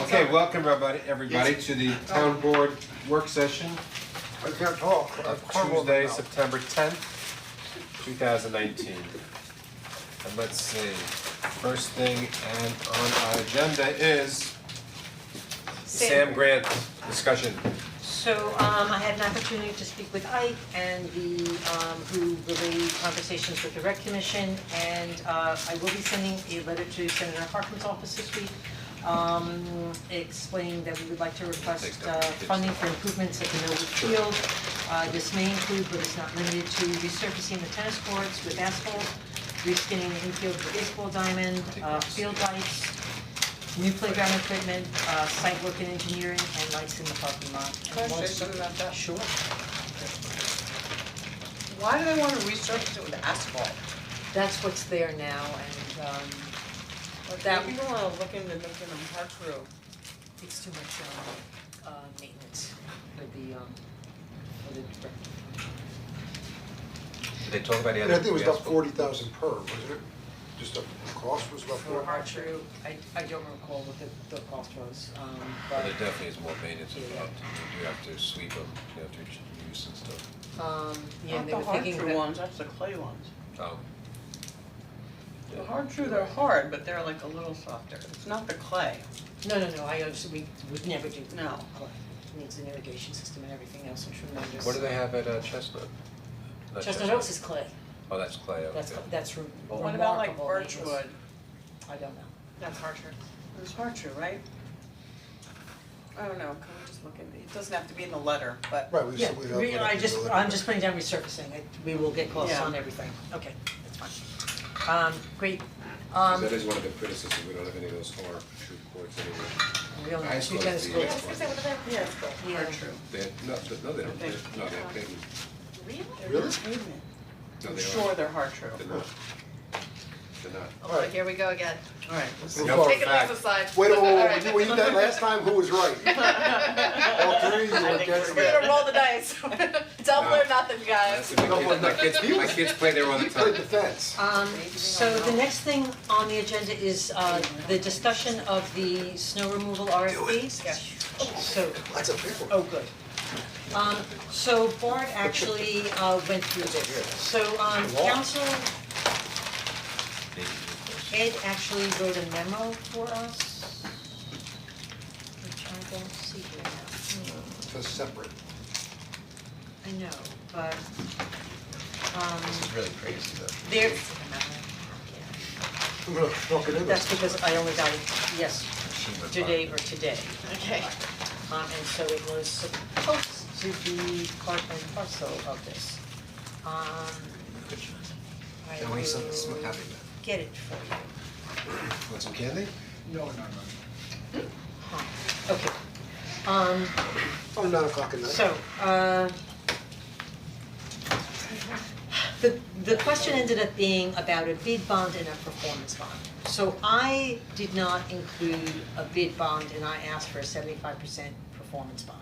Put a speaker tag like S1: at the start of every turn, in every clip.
S1: Okay, welcome everybody, everybody to the town board work session
S2: I can't talk, I
S1: of
S2: have cornrows
S1: Tuesday,
S2: now.
S1: September tenth, two thousand nineteen. And let's see, first thing and on our agenda is Sam Grant discussion.
S3: So um I had an opportunity to speak with Ike and the um who relayed conversations with the rec commission and uh I will be sending a letter to Senator Harkin's office this week. Um explaining that we would like to request uh funding for improvements at the Millwood Field. Uh this may include, but it's not limited to resurfacing the tennis courts with asphalt, reskinning the infield with baseball diamond, uh field lights, new playground equipment, uh, site work and engineering, and lights in the parking lot. And
S4: Can I say
S3: once-
S4: something about that?
S3: Sure.
S4: Why do they wanna resurface it with asphalt?
S3: That's what's there now, and, um,
S4: Like,
S3: That-
S4: People are looking to making them hard through.
S3: it's too much, um, uh, maintenance for the, um, for the,
S1: Did they talk about the
S2: And
S1: other?
S2: I think it was about
S1: asphalt?
S2: forty thousand per, wasn't it? Just the cost was about
S3: for
S2: forty?
S3: hard true, I, I don't recall what the, the cost was, um,
S1: Well,
S3: but,
S1: There definitely is more maintenance
S3: Yeah.
S1: involved, you do have to sweep them, you have to use and stuff.
S3: um, yeah,
S4: Not
S3: and they were thinking
S4: the hard true
S3: that,
S4: ones, that's the clay ones.
S1: Oh.
S4: The hard true, they're hard, but they're like a little softer. It's not the clay,
S3: no, no, no, I, understand. we would never do that.
S4: no.
S3: Needs an irrigation system and everything else, and tremendous.
S1: What do they have at uh, Chestnut? Not
S3: Chestnut Oaks is clay,
S1: Oh, that's clay, okay.
S3: that's, that's re- remarkable.
S4: What about like
S3: maintenance.
S4: birchwood?
S3: I don't know.
S4: That's hard true. It's hard true, right? I don't know, can we just look in, it doesn't have to be in the letter, but.
S2: Right, we
S3: Yeah,
S2: said we
S3: we-
S2: have-
S3: I just, I'm just putting down resurfacing, It- we will get close
S4: Yeah.
S3: on everything, okay, that's fine. Um, great, um,
S5: That is one of the criticisms, we don't have any of those hard true courts anywhere.
S3: we only have
S5: Ice
S3: two
S5: was
S3: tennis
S5: the-
S3: courts.
S4: Yeah, it's the
S3: Yeah.
S4: hard true.
S5: They're, no, th- no, they don't, they're, no, they're pavement,
S2: Really?
S4: Pavement.
S5: no,
S4: I'm
S5: they
S4: sure
S5: aren't,
S4: they're hard true.
S5: they're not, they're not.
S6: Oh, here we go again.
S4: Alright.
S1: I know for a
S6: Take it off
S1: fact,
S6: the side.
S2: Wait, wait,
S6: All
S2: wait,
S6: right.
S2: wait, we did that last time, who was right? All three, you
S4: I
S2: were
S4: think
S2: against
S4: we're
S6: We're
S2: me.
S6: gonna roll the dice. Double or nothing, guys.
S5: My kids, my kids, my kids play there all the
S2: You played
S5: time.
S2: defense.
S3: Um, so the next thing on the agenda is, uh, the discussion of the snow removal RFP. So,
S2: Lots of people.
S3: Oh, good. Um, so Bart actually, uh, went through this, so, um, council, Ed actually wrote a memo for us. Which I don't see here now. Hmm.
S2: It's a separate.
S3: I know, but, um,
S1: it's really crazy though.
S3: there,
S2: I'm gonna knock it in.
S3: that's because I only got it, yes, today or today.
S6: Okay.
S3: Um, and so it was supposed to be part and parcel of this. Um, I
S5: Can we send this one
S3: will
S5: copy
S3: get it for you.
S5: Want some candy?
S3: Huh. Okay. Um,
S2: Oh, nine o'clock at night.
S3: So, uh. The, the question ended up being about a bid bond and a performance bond. So I did not include a bid bond and I asked for a seventy-five percent performance bond.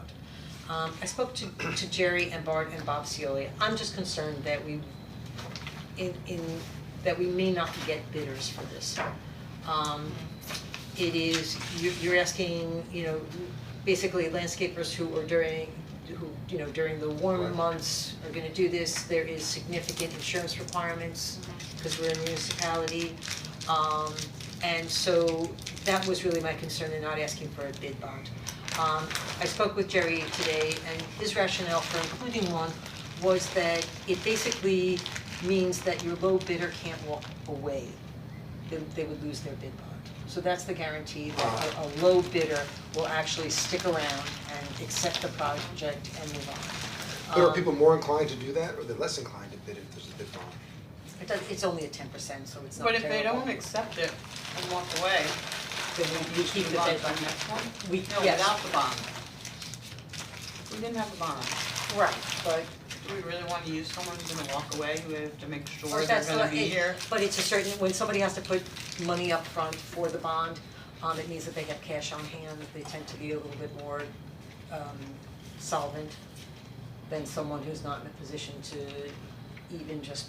S3: Um, I spoke to, to Jerry and Bart and Bob Cioli, I'm just concerned that we, in, in, that we may not get bidders for this. Um, it is, you're you're asking, you know, basically landscapers who are during, who, you know, during the warm months are gonna do this, there is significant insurance requirements, cause we're a municipality. Um, and so that was really my concern in not asking for a bid bond. Um, I spoke with Jerry today and his rationale for including one was that it basically means that your low bidder can't walk away they they would lose their bid bond. So that's the guarantee that a a low bidder will actually stick around and accept the project and move on.
S2: But are
S3: Um,
S2: people more inclined to do that, or they're less inclined to bid if there's a bid bond?
S3: It does, it's only a ten percent, so it's not
S4: But if
S3: terrible.
S4: they don't accept it and walk away,
S3: Then we we keep the
S4: Move on
S3: bid
S4: to the
S3: bond.
S4: next one?
S3: We-
S4: No,
S3: yes.
S4: without the bond. We didn't have the bond.
S3: Right, but
S4: Do we really wanna use someone who's gonna walk away, who we have to make sure
S3: But
S4: they're
S3: that's
S4: gonna
S3: not-
S4: be
S3: it-
S4: here?
S3: But it's a certain, when somebody has to put money up front for the bond, um, it means that they have cash on hand, they tend to be a little bit more, um, solvent than someone who's not in a position to even just